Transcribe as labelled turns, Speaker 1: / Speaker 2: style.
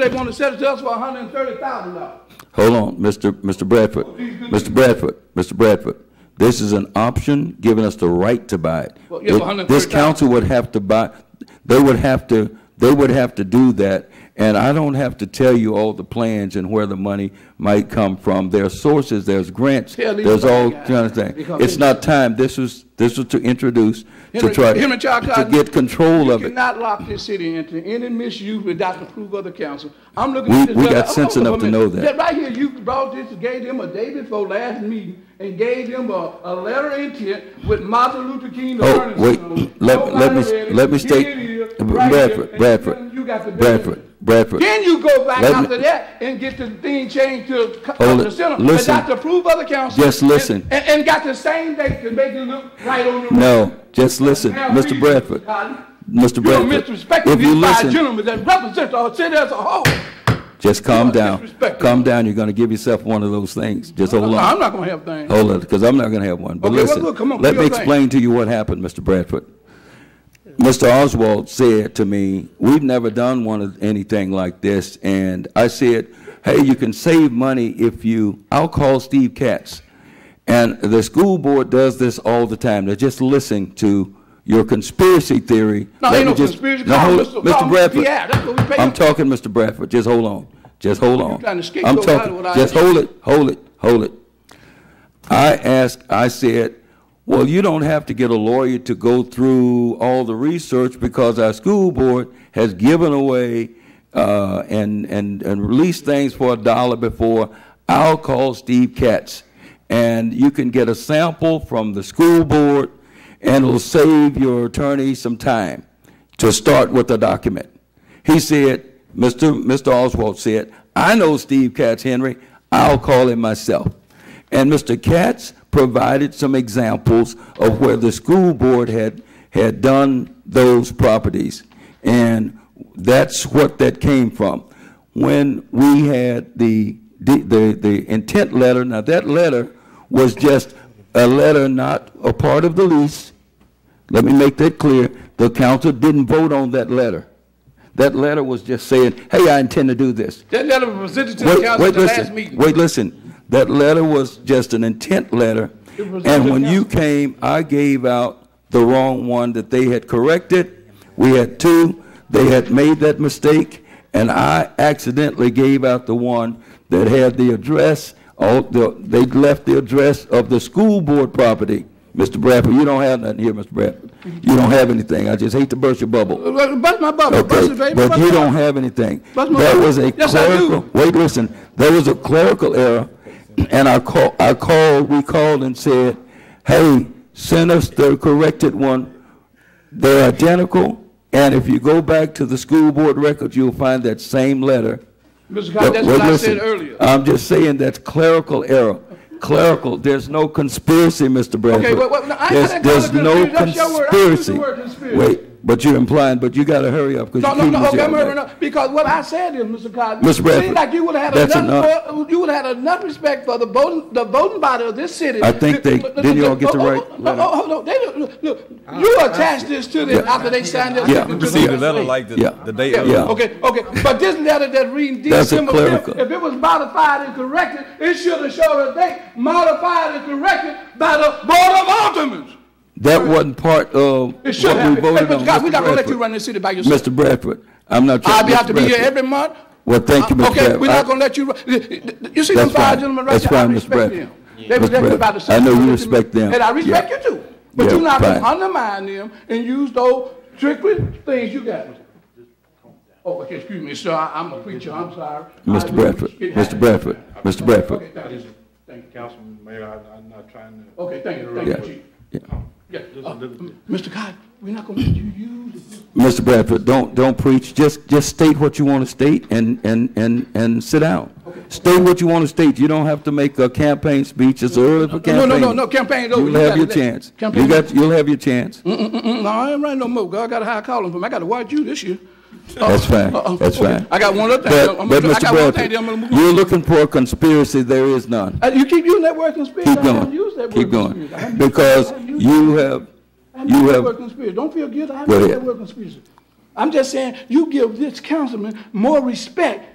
Speaker 1: They want to sell it to us for hundred and thirty thousand dollars.
Speaker 2: Hold on, Mr. Mr. Bradford, Mr. Bradford, Mr. Bradford. This is an option giving us the right to buy it.
Speaker 1: Well, yeah, but $130,000
Speaker 2: This council would have to buy, they would have to, they would have to do that. And I don't have to tell you all the plans and where the money might come from. There are sources, there's grants,
Speaker 1: Tell these
Speaker 2: there's all
Speaker 1: guys,
Speaker 2: kind of things.
Speaker 1: because
Speaker 2: It's not time. This was, this was to introduce, to
Speaker 1: Henry-
Speaker 2: try,
Speaker 1: Henry Child
Speaker 2: to
Speaker 1: Cotton,
Speaker 2: get control
Speaker 1: You
Speaker 2: of it.
Speaker 1: cannot lock this city into any misuse without the approval of the council. I'm looking
Speaker 2: We-
Speaker 1: at this.
Speaker 2: we
Speaker 1: brother-
Speaker 2: got
Speaker 1: I'm
Speaker 2: sense
Speaker 1: looking
Speaker 2: enough
Speaker 1: for
Speaker 2: to
Speaker 1: a
Speaker 2: know
Speaker 1: minute.
Speaker 2: that.
Speaker 1: Right here, you brought this, gave them a day before last meeting and gave them a, a letter of intent with Martin Luther King
Speaker 2: Oh,
Speaker 1: attorney.
Speaker 2: wait, let, let
Speaker 1: Nobody read
Speaker 2: me,
Speaker 1: it.
Speaker 2: let me
Speaker 1: Here
Speaker 2: state,
Speaker 1: it is, right here,
Speaker 2: Bradford,
Speaker 1: and you got the
Speaker 2: Bradford, Bradford,
Speaker 1: business.
Speaker 2: Bradford.
Speaker 1: Then you go back
Speaker 2: Let me-
Speaker 1: after that and get the thing changed to co-
Speaker 2: Hold
Speaker 1: to the
Speaker 2: it.
Speaker 1: center
Speaker 2: Listen.
Speaker 1: without the approval of the council.
Speaker 2: Just listen.
Speaker 1: And, and- and got the same date to make it look right on the.
Speaker 2: No, just listen, Mr. Bradford, Mr.
Speaker 1: You're
Speaker 2: Bradford.
Speaker 1: misrespecting
Speaker 2: If you
Speaker 1: these five
Speaker 2: listen,
Speaker 1: gentlemen that represent our city as a whole.
Speaker 2: just calm
Speaker 1: you are
Speaker 2: down.
Speaker 1: disrespecting.
Speaker 2: Calm down, you're gonna give yourself one of those things. Just hold
Speaker 1: No,
Speaker 2: on. Oh,
Speaker 1: I'm not gonna have things.
Speaker 2: Hold it, because I'm not gonna have one. But
Speaker 1: Okay, well,
Speaker 2: listen,
Speaker 1: look, come on,
Speaker 2: let
Speaker 1: do
Speaker 2: me
Speaker 1: your thing.
Speaker 2: explain to you what happened, Mr. Bradford. Mr. Oswald said to me, "We've never done one of anything like this," and I said, "Hey, you can save money if you." I'll call Steve Katz, and the school board does this all the time. They're just listening to your conspiracy theory.
Speaker 1: No,
Speaker 2: Let
Speaker 1: ain't
Speaker 2: me
Speaker 1: no
Speaker 2: just-
Speaker 1: conspiracy.
Speaker 2: No,
Speaker 1: Call
Speaker 2: hold it,
Speaker 1: Mr. Call
Speaker 2: Mr.
Speaker 1: Mr. PI.
Speaker 2: Bradford.
Speaker 1: That's what we pay
Speaker 2: I'm
Speaker 1: him.
Speaker 2: talking, Mr. Bradford. Just hold on. Just hold on.
Speaker 1: trying to escape
Speaker 2: I'm
Speaker 1: your
Speaker 2: talking.
Speaker 1: body without
Speaker 2: Just
Speaker 1: it.
Speaker 2: hold it. Hold it. Hold it. I asked, I said, well, you don't have to get a lawyer to go through all the research because our school board has given away uh, and, and, and released things for a dollar before. I'll call Steve Katz. And you can get a sample from the school board and it'll save your attorney some time to start with the document. He said, Mr. Mr. Oswald said, I know Steve Katz Henry. I'll call him myself. And Mr. Katz provided some examples of where the school board had, had done those properties. And that's what that came from. When we had the, the, the intent letter, now that letter was just a letter not a part of the lease. Let me make that clear. The council didn't vote on that letter. That letter was just saying, hey, I intend to do this.
Speaker 1: That letter was presented to the
Speaker 2: Wait,
Speaker 1: council
Speaker 2: wait,
Speaker 1: at the last
Speaker 2: listen,
Speaker 1: meeting.
Speaker 2: wait, listen. That letter was just an intent letter,
Speaker 1: It was
Speaker 2: and
Speaker 1: to
Speaker 2: when
Speaker 1: the
Speaker 2: you came, I gave out the wrong one that they had corrected. We had two, they had made that mistake, and I accidentally gave out the one that had the address, all, the- they left the address of the school board property. Mr. Bradford, you don't have nothing here, Mr. Bradford. You don't have anything. I just hate to burst your bubble.
Speaker 1: Uh, Bust my bubble, bust
Speaker 2: Okay,
Speaker 1: it, baby.
Speaker 2: but
Speaker 1: bust
Speaker 2: you
Speaker 1: it.
Speaker 2: don't have anything.
Speaker 1: That's my
Speaker 2: That
Speaker 1: point.
Speaker 2: was a
Speaker 1: Yes, I do.
Speaker 2: clerical, wait, listen, there was a clerical error, and I call, I called, we called and said, hey, send us the corrected one. They're identical, and if you go back to the school board records, you'll find that same letter.
Speaker 1: Mr. Cotton, that's
Speaker 2: Well,
Speaker 1: what I
Speaker 2: listen,
Speaker 1: said earlier.
Speaker 2: I'm just saying that's clerical error. Clerical, there's no conspiracy, Mr. Bradford.
Speaker 1: wait, wait, no, I
Speaker 2: There's-
Speaker 1: didn't call it conspiracy. That's your word. I didn't use
Speaker 2: There's
Speaker 1: the
Speaker 2: no
Speaker 1: word
Speaker 2: conspiracy.
Speaker 1: conspiracy.
Speaker 2: Wait, but you're implying, but you gotta hurry up, because
Speaker 1: No,
Speaker 2: you're
Speaker 1: no,
Speaker 2: keeping
Speaker 1: no,
Speaker 2: us
Speaker 1: okay,
Speaker 2: here all
Speaker 1: I'm
Speaker 2: night.
Speaker 1: hurrying up, because what I said is, Mr. Cotton.
Speaker 2: Mr. Bradford,
Speaker 1: Seems like you would have
Speaker 2: that's
Speaker 1: enough,
Speaker 2: enough.
Speaker 1: for- you would have had enough respect for the voting, the voting body of this city.
Speaker 2: I think they-
Speaker 1: Look, look,
Speaker 2: didn't
Speaker 1: look,
Speaker 2: y'all get the
Speaker 1: oh, oh,
Speaker 2: right
Speaker 1: oh,
Speaker 2: letter?
Speaker 1: Oh, hold on, they, don't- look, look, you attached this to them
Speaker 2: Yeah.
Speaker 1: after they signed this.
Speaker 2: Yeah.
Speaker 1: to the-
Speaker 3: received a letter like the,
Speaker 2: Yeah.
Speaker 3: the day of.
Speaker 2: Yeah.
Speaker 1: Yeah, okay, okay, but this letter that reading
Speaker 2: That's a
Speaker 1: December
Speaker 2: clerical.
Speaker 1: fifth, if it was modified and corrected, it should have showed a date modified and corrected by the Board of Aldermen.
Speaker 2: That wasn't part of what we
Speaker 1: It should have. Hey,
Speaker 2: voted on,
Speaker 1: Mr. Cotton, we not gonna let
Speaker 2: Mr.
Speaker 1: you
Speaker 2: Bradford.
Speaker 1: run this city by yourself.
Speaker 2: Mr. Bradford, I'm not trying.
Speaker 1: I'll be,
Speaker 2: Mr.
Speaker 1: have to be here
Speaker 2: Bradford.
Speaker 1: every month.
Speaker 2: Well, thank you, Mr. Bradford.
Speaker 1: Uh, Okay, we're not
Speaker 2: I-
Speaker 1: gonna let you, run. you see
Speaker 2: Uh, That's
Speaker 1: those
Speaker 2: fine.
Speaker 1: five gentlemen right
Speaker 2: That's
Speaker 1: there, I
Speaker 2: fine, Mr.
Speaker 1: respect
Speaker 2: Bradford.
Speaker 1: them. They
Speaker 2: Mr.
Speaker 1: respect about the
Speaker 2: Bradford, I know you
Speaker 1: Southern
Speaker 2: respect them.
Speaker 1: And I respect
Speaker 2: Yeah.
Speaker 1: you too, but
Speaker 2: Yeah,
Speaker 1: you're not gonna
Speaker 2: fine.
Speaker 1: undermine them and use those trickery things you got. Oh, okay, excuse me, sir, I- I'm a preacher, I'm sorry. I-
Speaker 2: Mr. Bradford,
Speaker 1: it
Speaker 2: Mr.
Speaker 1: happens.
Speaker 2: Bradford, Mr. Bradford.
Speaker 1: Okay, thank you, thank you,
Speaker 4: Councilman Mayor, I, I'm not trying to.
Speaker 1: okay, thank you,
Speaker 2: Yeah.
Speaker 1: thank you, Chief.
Speaker 2: Yeah.
Speaker 1: Yeah,
Speaker 4: Just a
Speaker 1: uh,
Speaker 4: little bit.
Speaker 1: Mr. Cotton, we're not gonna let you use it.
Speaker 2: Mr. Bradford, don't, don't preach, just, just state what you want to state and, and, and, and sit down. State what you want to state, you don't have to make a campaign speech, it's early for
Speaker 1: No,
Speaker 2: campaign.
Speaker 1: no, no, no, campaign's over.
Speaker 2: You'll
Speaker 1: You
Speaker 2: have
Speaker 1: gotta
Speaker 2: your
Speaker 1: let-
Speaker 2: chance, you
Speaker 1: Campaign's over.
Speaker 2: got, you'll have your chance,
Speaker 1: Mm-mm, no, I ain't running no more. God, I got a high calling for me. I got to watch you this year. Uh,
Speaker 2: that's fine,
Speaker 1: uh-uh,
Speaker 2: that's
Speaker 1: okay.
Speaker 2: fine.
Speaker 1: I got one other thing.
Speaker 2: But,
Speaker 1: I'm gonna-
Speaker 2: but
Speaker 1: I got one
Speaker 2: Mr.
Speaker 1: thing.
Speaker 2: Bradford,
Speaker 1: then I'm gonna move on.
Speaker 2: you're looking for a conspiracy, there is none.
Speaker 1: Uh, you keep using that word conspiracy.
Speaker 2: Keep
Speaker 1: I haven't used
Speaker 2: going,
Speaker 1: that
Speaker 2: keep
Speaker 1: word
Speaker 2: going,
Speaker 1: conspiracy. I haven't used-
Speaker 2: because
Speaker 1: I haven't used
Speaker 2: you
Speaker 1: I
Speaker 2: have,
Speaker 1: haven't used
Speaker 2: you
Speaker 1: that
Speaker 2: have
Speaker 1: word conspiracy. Don't feel guilty. I
Speaker 2: Go
Speaker 1: haven't used
Speaker 2: ahead.
Speaker 1: that word conspiracy. I'm just saying you give this councilman more respect